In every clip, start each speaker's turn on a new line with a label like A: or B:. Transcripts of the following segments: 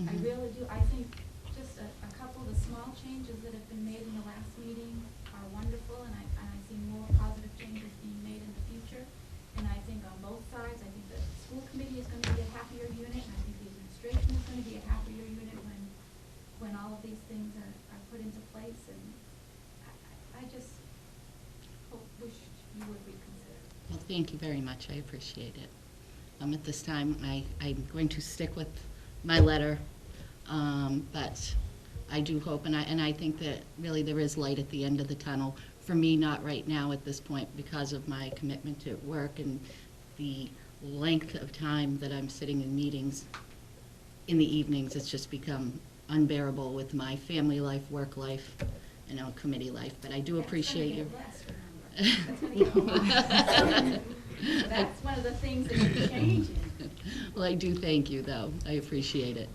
A: I
B: Mhm.
A: really do, I think just a, a couple of the small changes that have been made in the last meeting are wonderful, and I, and I see more positive changes being made in the future. And I think on both sides, I think the school committee is gonna be a happier unit, and I think the administration is gonna be a happier unit when, when all of these things are, are put into place, and I, I I just hope, wish you would reconsider.
B: Well, thank you very much, I appreciate it. Um, At this time, I, I'm going to stick with my letter, um, but I do hope, and I, and I think that really there is light at the end of the tunnel. For me, not right now at this point because of my commitment to work and the length of time that I'm sitting in meetings in the evenings, it's just become unbearable with my family life, work life, you know, committee life, but I do appreciate you.
A: That's gonna get less, remember. That's gonna get less. That's one of the things that you're changing.
B: Well, I do thank you, though. I appreciate it.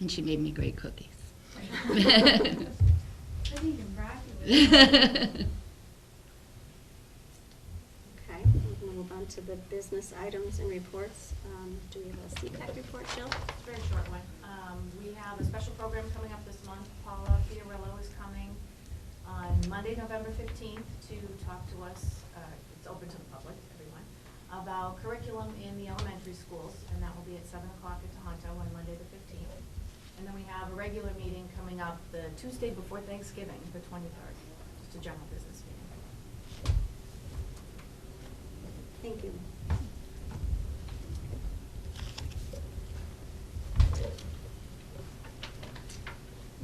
B: And she made me great cookies.
A: I think you're right.
C: Okay, we can move on to the business items and reports. Um, Do we have a CPAC report, Jill?
D: It's a very short one. Um, we have a special program coming up this month. Paula Fiorillo is coming on Monday, November fifteenth, to talk to us, uh, it's open to the public, everyone, about curriculum in the elementary schools, and that will be at seven o'clock at Tohoto on Monday the fifteenth. And then we have a regular meeting coming up the Tuesday before Thanksgiving, the twenty-third, just a general business meeting.
C: Thank you.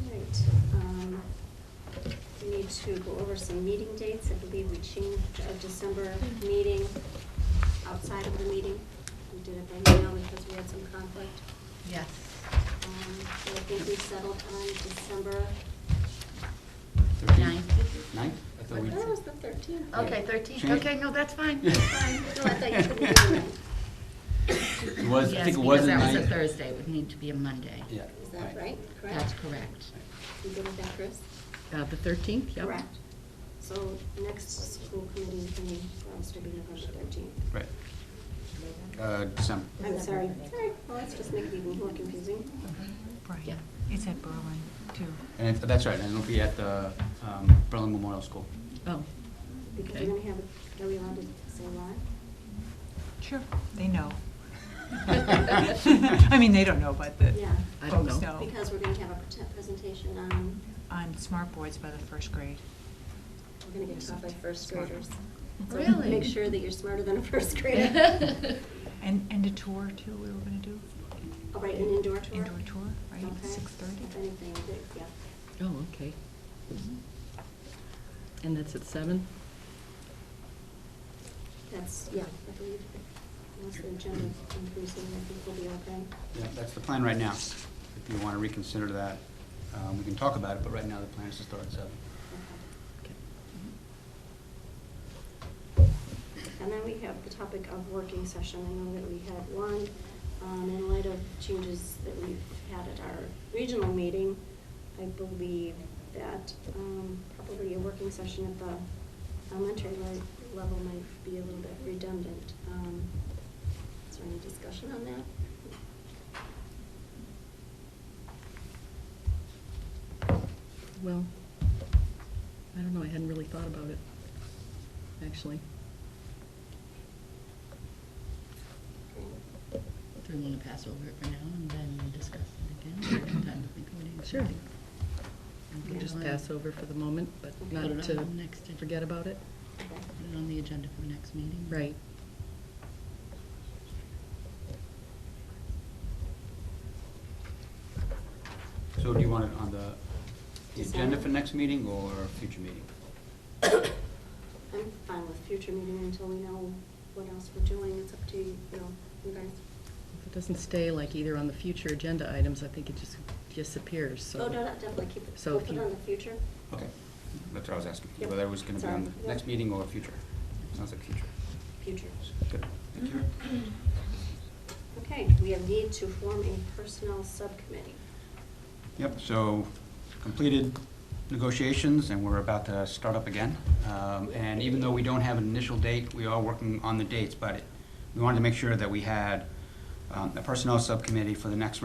C: All right, um, we need to go over some meeting dates. I believe we changed our December meeting outside of the meeting. We did it by mail because we had some conflict.
B: Yes.
C: Um, So I think we settled on December,
B: Nine.
E: Ninth? I thought
C: I
E: we.
C: thought it was the thirteenth.
B: Okay, 13.
E: Change.
B: Okay, no, that's fine.
C: No, I thought you said the ninth.
E: It was, I
B: Yes,
E: think it
B: because
E: was the ninth.
B: that was a Thursday. It would need to be a Monday.
E: Yeah.
C: Is that right? Correct?
B: That's correct.
C: You good with that, Chris?
B: Uh, The 13th, yep.
C: Correct. So next school committee meeting for us to be November thirteenth.
E: Right. Uh, December.
C: I'm sorry, sorry, well, that's just making it even more confusing.
B: Yeah.
F: Right, it's at Berlin, too.
E: And if, that's right, and it'll be at the, um, Berlin Memorial School.
B: Oh,
C: Because
B: Okay.
C: we're gonna have, are we allowed to say live?
F: Sure, they know. I
E: I
F: mean, they don't know, but the
C: Yeah.
B: I don't
F: folks
B: know.
F: know.
C: Because we're gonna have a prete- presentation on,
F: On smart boards by the first grade.
C: we're gonna get taught by first
F: Smart.
C: graders. So
B: really?
C: Make sure that you're smarter than a first grader.
F: And, and a tour, too, we were going to do.
C: All right, an indoor tour?
F: Indoor tour, right,
C: Okay.
F: 6:30.
C: If anything, that- yeah.
G: Oh, okay.
B: Mm-hmm.
G: And that's at seven?
C: That's, yeah, I believe, unless the agenda is increasing, I think we'll be okay.
E: Yeah, that's the plan right now. If you want to reconsider that, um, we can talk about it, but right now the plan is to start at seven.
C: Okay.
G: Okay.
C: And then we have the topic of working session. I know that we had one, um, in light of changes that we've had at our regional meeting. I believe that, um, probably a working session at the elementary le- level might be a little bit redundant. Um, is there any discussion on that?
G: Well, I don't know, I hadn't really thought about it, actually.
B: Do we want to pass over it for now and then discuss it again? Or have time to think of it?
G: Sure. We
B: Okay.
G: can just pass over for the moment, but
C: Put
G: not
B: it
G: to
B: on next to-
G: forget about it.
C: Okay.
B: Put it on the agenda for next meeting.
G: Right.
E: So do you want it on the, the agenda for next meeting or future meeting?
C: I'm fine with future meeting until we know what else we're doing. It's up to, you know, you guys.
G: If it doesn't stay like either on the future agenda items, I think it just disappears, so.
C: Oh, no, no, definitely keep it,
G: so
C: we'll
G: if
C: put it
G: you-
C: on the future.
E: Okay, that's what I was asking,
C: Yep.
E: whether it was going to be on
C: Sorry.
E: the next meeting or future. Sounds like future.
C: Future.
E: Good, thank you.
C: Mm-hmm. Okay, we have need to form a personnel subcommittee.
E: Yep, so completed negotiations, and we're about to start up again. Um, And even though we don't have an initial date, we are working on the dates, but we wanted to make sure that we had um, a personnel subcommittee for the next